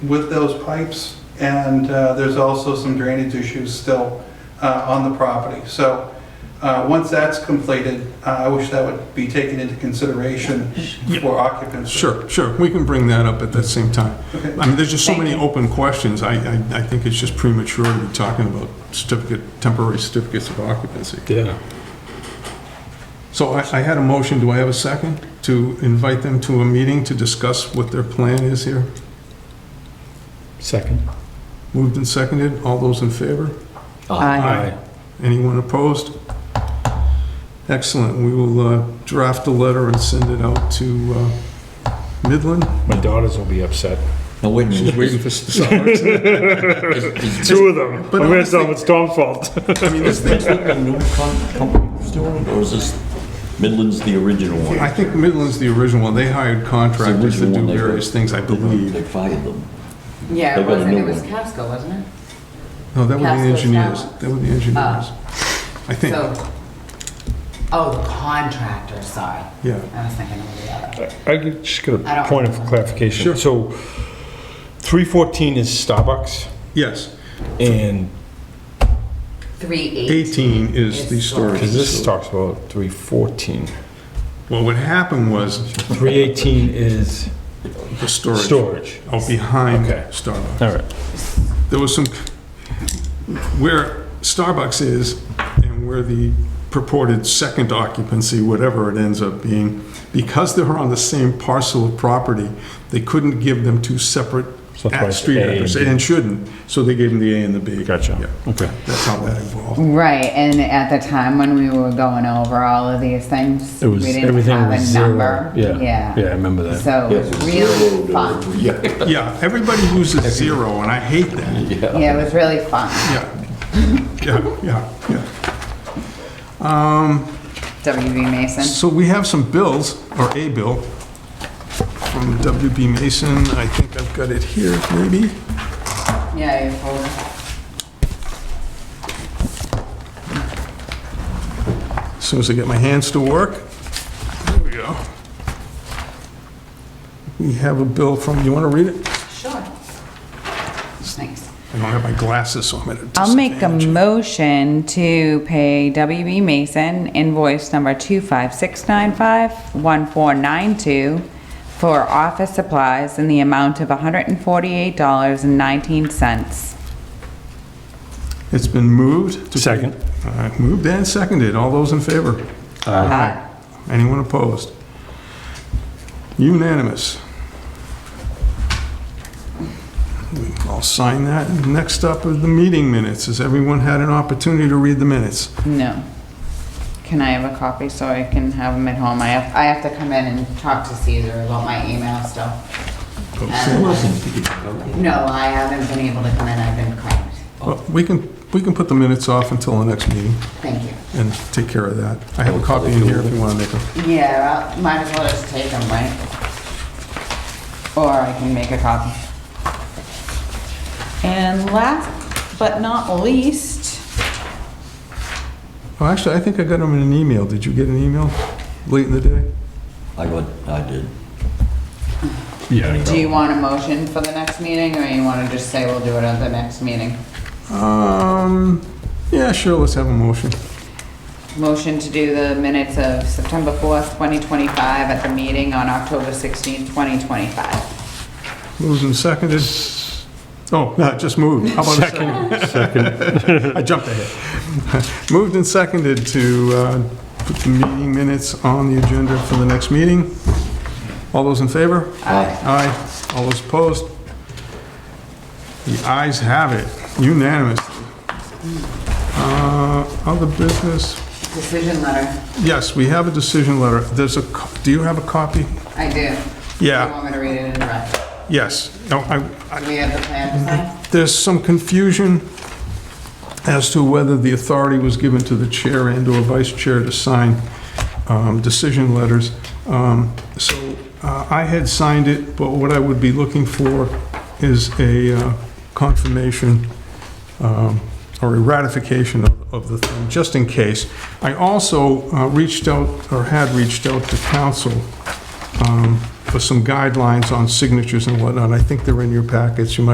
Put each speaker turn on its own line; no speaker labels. with those pipes, and uh, there's also some drainage issues still uh, on the property. So uh, once that's completed, uh, I wish that would be taken into consideration for occupancy.
Sure, sure, we can bring that up at that same time.
Okay.
I mean, there's just so
Thank
many
you.
open questions, I, I, I think it's just premature to be talking about certificate, temporary certificates of occupancy.
Yeah.
So I, I had a motion, do I have a second? To invite them to a meeting to discuss what their plan is here?
Second.
Moved and seconded, all those in favor? Aye. Anyone opposed? Excellent, we will uh, draft a letter and send it out to uh, Midland.
My daughters will be upset.
Now, wait a
She's
minute.
waiting for us to start.
Is- is-
Two of them.
But
I'm gonna tell
honestly-
them it's Tom's fault.
I mean, this
Is
thing,
Midland the new com- company that's doing it, or is this Midland's the original one?
I think Midland's the original one, they hired contractors to do various things, I
They
believe.
fired them.
Yeah,
They
it
got a
wasn't,
new
it was
one.
Casco, wasn't
No, that were the
Casco's
engineers,
Talent.
that were the engineers,
Ah.
I
it?
think,
So, oh, the contractor, sorry.
yeah.
I was thinking of the other.
I could- just got
I
a
don't
point of
remember.
clarification.
Sure.
So 314 is Starbucks
Yes,
and,
Three eight.
18 is the storage
because this
facility.
talks about 314.
Well, what happened was
318 is
the storage.
storage.
Out behind
Okay.
Starbucks.
All right.
there was some, where Starbucks is and where the purported second occupancy, whatever it ends up being, because they were on the same parcel of property, they couldn't give them two separate
So that's why it's
street
A and
addresses,
B.
and shouldn't, so they gave them the A and the B.
Gotcha.
Yeah,
Okay.
That's how that evolved.
Right, and at the time when we were going over all of these things,
It
we
was,
didn't
everything was
have a
zero.
number.
Yeah. Yeah, I remember that.
So it was
uh,
really fun.
Yeah.
Yeah, everybody uses zero, and I hate that.
Yeah, it was really fun.
Yeah, yeah, yeah, yeah.
WB Mason.
So we have some bills, or a bill, from WB Mason. I think I've got it here, maybe.
Yeah, your folder.
As soon as I get my hands to work. There we go. We have a bill from, you want to read it?
Sure. Thanks.
I don't have my glasses, so I'm at a
I'll make a
disadvantage.
motion to pay WB Mason invoice number 25695-1492 for office supplies in the amount of $148.19.
It's been moved. to-
Second.
All right, Moved and seconded. All those in favor?
Aye.
Anyone opposed? Unanimous. I'll sign that. Next up are the meeting minutes. Has everyone had an opportunity to read the minutes?
Uh, No. Can I have a copy so I can have them at home? I have, I have to come in and talk to Caesar about my email stuff. No, I haven't been able to come in, I've been cramped.
Well, We can, we can put the minutes off until the next meeting
Thank you.
and take care of that. I have a copy in here if you want to make a...
Yeah, well, might as well just take them, right? Or I can make a copy. And last but not least,
Well, Oh, actually, I think I got them in an email. Did you get an email late in the day?
I got, I did.
Yeah. I
do you
know.
want a motion for the next meeting, or you want to just say we'll do it at the next meeting?
Um, yeah, sure, let's have a motion.
Motion to do the minutes of September 4th, 2025, at the meeting on October 16th, 2025.
Moved and seconded. Oh, no, just moved. How about a second? Second. I jumped ahead. Moved and seconded to uh, put the meeting minutes on the agenda for the next meeting. All those in favor?
Aye.
Aye. All those opposed? The ayes have it unanimously. Uh, Other business?
Decision letter,
Yes, we have a decision letter. There's a, co- do you have a copy?
I do.
Yeah.
You want me to read it in red?
Yes. No, I,
Do we have the plan to sign?
there's some confusion as to whether the authority was given to the chair and/or vice chair to sign um, decision letters. Um, So uh, I had signed it, but what I would be looking for is a uh, confirmation um, or a ratification of- of the thing, just in case. I also uh, reached out, or had reached out to council um, for some guidelines on signatures and whatnot. I think they're in your packets. You might